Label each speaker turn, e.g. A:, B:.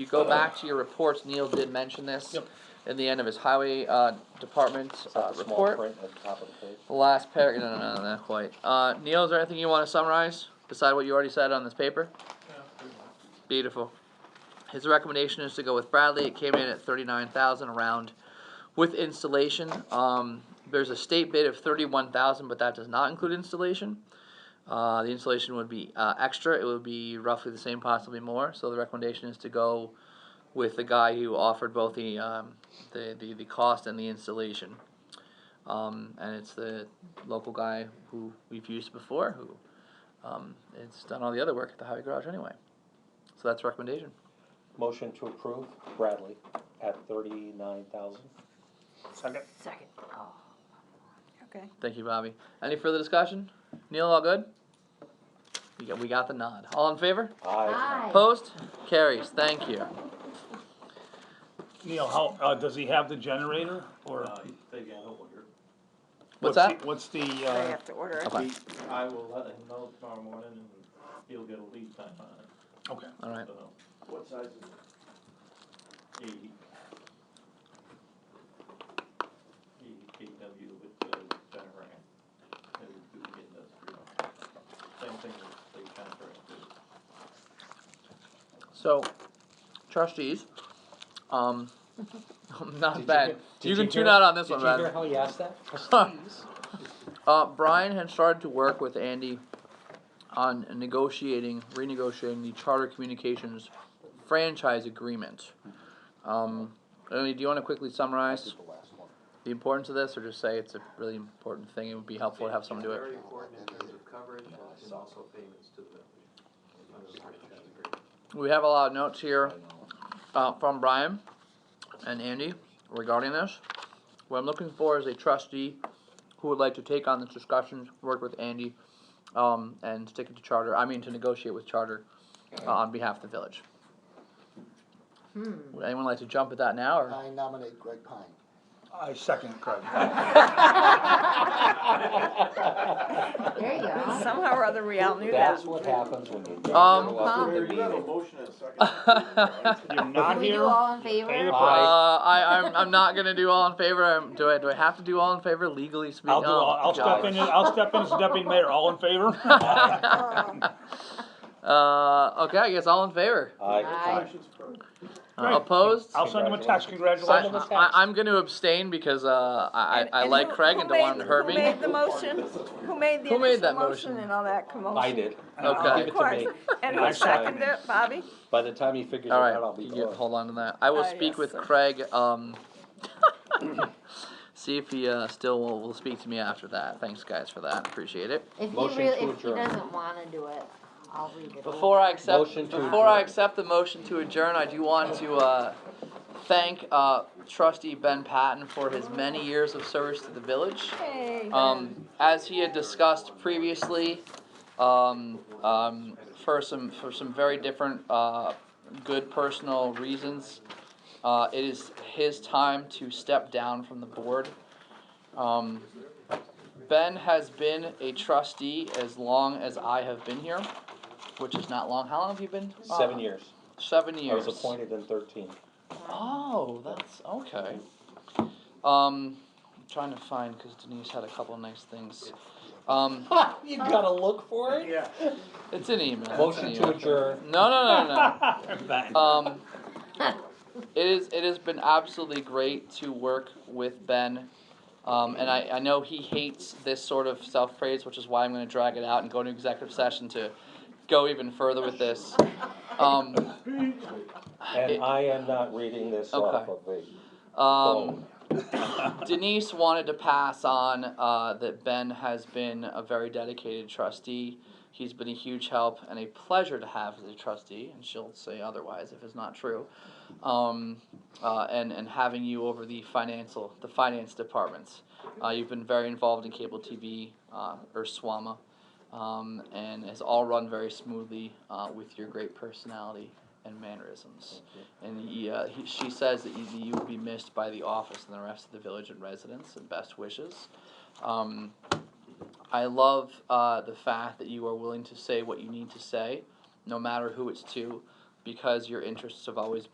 A: You go back to your reports, Neil did mention this.
B: Yep.
A: In the end of his highway, uh, department, uh, report.
C: at the top of the page.
A: The last par, no, no, no, not quite. Uh, Neil, is there anything you wanna summarize, beside what you already said on this paper? Beautiful. His recommendation is to go with Bradley, it came in at thirty-nine thousand around with installation. Um, there's a state bid of thirty-one thousand, but that does not include installation. Uh, the installation would be, uh, extra, it would be roughly the same, possibly more, so the recommendation is to go with the guy who offered both the, um, the, the, the cost and the installation. Um, and it's the local guy who we've used before who um, it's done all the other work at the highway garage anyway. So that's recommendation.
C: Motion to approve Bradley at thirty-nine thousand.
B: Second.
D: Second. Okay.
A: Thank you, Bobby. Any further discussion? Neil, all good? We got, we got the nod. All in favor?
C: Aye.
A: Opposed? Carries. Thank you.
B: Neil, how, uh, does he have the generator, or?
E: Uh, They got over here.
A: What's
B: the-
A: that?
B: What's the,
D: I
B: uh,
D: have to order it.
A: Okay.
E: He- I will let him know tomorrow morning and he'll get a lead time on it,
B: okay,
A: All right.
E: so. What size is it? Eighty. Eighty KW with, uh, generator. They would do the industrial. Same thing with state contract. too.
A: So, trustees, um,
C: Did
A: not
C: you
A: bad.
C: hear- did
A: You can
C: hear-
A: tune out on this one,
C: Did you hear
A: Brad.
C: how he asked that?
A: Uh, Brian had started to work with Andy on negotiating, renegotiating the Charter Communications franchise agreement. Um, Ernie, do you wanna quickly summarize the importance of this, or just say it's a really important thing, it would be helpful to have someone do
F: Very
A: it?
F: important in terms of coverage and also payments to the village.
A: We have a lot of notes here, uh, from Brian and Andy regarding this. What I'm looking for is a trustee who would like to take on this discussion, work with Andy, um, and stick it to charter, I mean, to negotiate with charter, uh, on behalf of the village. Would anyone like to jump at that now, or?
G: I nominate Greg Pine.
B: I second it, Craig.
D: There you go. Somehow or other, we all knew that.
C: That's what happens when you. don't
A: Um,
C: show up to the
E: You have a
C: meeting.
E: motion and a second.
B: You're not
D: We do
B: here?
D: all in favor?
B: Favor?
A: Uh,
C: Aye.
A: I, I'm, I'm not gonna do all in favor, I'm, do I, do I have to do all in favor legally speaking? Oh,
B: I'll do, I'll I'll step in, as- I'll step in as deputy mayor, all in favor?
A: Uh, okay, I guess all in favor,
C: Aye.
D: Aye.
A: Uh,
B: Great.
A: opposed?
B: I'll send him a text,
A: I,
B: congratulations.
A: I, I'm gonna abstain because, uh, I,
D: And-
A: I, I
D: and
A: like
D: who-
A: Craig
D: who
A: and don't want him to
D: made-
A: hurt me.
D: Who made the motion? Who made the
A: Who made
D: initial
A: that
D: motion
A: motion?
D: and all that commotion?
C: I did.
A: Okay.
C: Give
D: Of
C: it to
D: course.
C: me.
D: And
B: I
D: who
B: second
D: seconded
B: it.
D: it, Bobby?
C: By the time he figures it
A: All
C: out, I'll
A: right,
C: be
A: you get,
C: gone.
A: hold on to that. I will
D: Uh,
A: speak
D: yes,
A: with
D: sir.
A: Craig. Um, see if he uh, still will, will speak to me after that. Thanks, guys, for that. Appreciate it.
H: If he
C: Motion
H: really,
C: to
H: if he
C: adjourn.
H: doesn't wanna do it, I'll read it.
A: Before I accept,
C: Motion to
A: before I
C: adjourn.
A: accept the motion to adjourn, I do want to uh, thank uh, Trustee Ben Patton for his many years of service to the village.
D: Hey, Ben.
A: Um, as he had discussed previously, um, um, for some, for some very different, uh, good personal reasons, uh, it is his time to step down from the board. Um, Ben has been a trustee as long as I have been here, which is not long. How long have you been? uh,
C: Seven years.
A: Seven
C: I
A: years.
C: was appointed in thirteen.
A: Oh, that's okay. Um, I'm trying to find because Denise had a couple nice things. Um,
C: You gotta look for it.
B: Yeah.
A: it's an email. it's an
C: Motion to
A: email.
C: adjourn.
A: No, no, no,
B: Ben.
A: no. Um, it is. It has been absolutely great to work with Ben. Um, and I, I know he hates this sort of self praise, which is why I'm going to drag it out and go into executive session to go even further with this. Um,
C: And I am not reading this
A: Okay.
C: off of the
A: um,
C: phone.
A: Denise wanted to pass on uh, that Ben has been a very dedicated trustee. He's been a huge help and a pleasure to have as a trustee, and she'll say otherwise if it's not true. Um, uh, and and having you over the financial the finance departments, uh, you've been very involved in cable TV uh, or SWAMA, um, and has all run very smoothly uh, with your great personality and mannerisms. And he, uh, he, she says that you, you will be missed by the office and the rest of the village and residents, and best wishes. Um, I love uh, the fact that you are willing to say what you need to say, no matter who it's to, because your interests have always been.